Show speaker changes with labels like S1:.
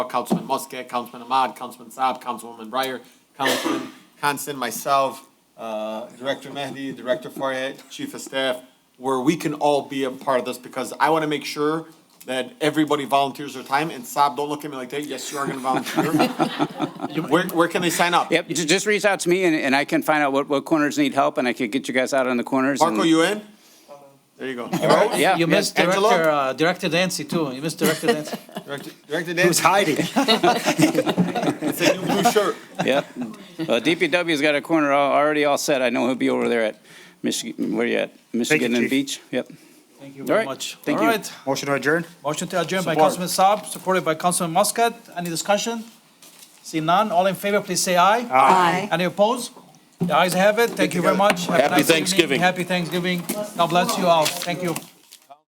S1: Councilman Muscat, Councilman Ahmad, Councilman Saab, Councilwoman Breyer, Councilman Constant, myself, uh, Director Mehdi, Director Farhat, Chief of Staff, where we can all be a part of this, because I want to make sure that everybody volunteers their time, and Saab, don't look at me like that, yes, you are going to volunteer. Where, where can they sign up?
S2: Yep, ju- just reach out to me and, and I can find out what, what corners need help and I can get you guys out on the corners. and-
S1: Marco, you in? There you go.
S2: Yeah,
S3: You
S2: yeah.
S3: missed
S1: Angelo?
S3: Director, uh, Director Dancy too. You missed Director Dancy.
S1: Director- Director Dan,
S4: hiding?
S1: it's a new blue shirt.
S2: Yeah. Well, DPW's got a corner al- already all set. I know he'll be over there at Michigan, where you at? Michigan and
S4: Chief.
S2: Beach? Yep.
S3: Thank you
S2: All
S3: very
S2: right.
S3: much.
S2: Thank
S3: All
S2: you.
S3: right.
S4: Motion to adjourn?
S3: Motion to adjourn by
S1: Support.
S3: Councilman Saab, supported by Councilman Muscat. Any discussion? See none. All in favor, please say aye.
S5: Aye.
S3: Any opposed? The ayes have it. Thank you very much. Have a
S6: Happy
S3: nice evening.
S6: Thanksgiving.
S3: Happy Thanksgiving. God bless you all. Thank you.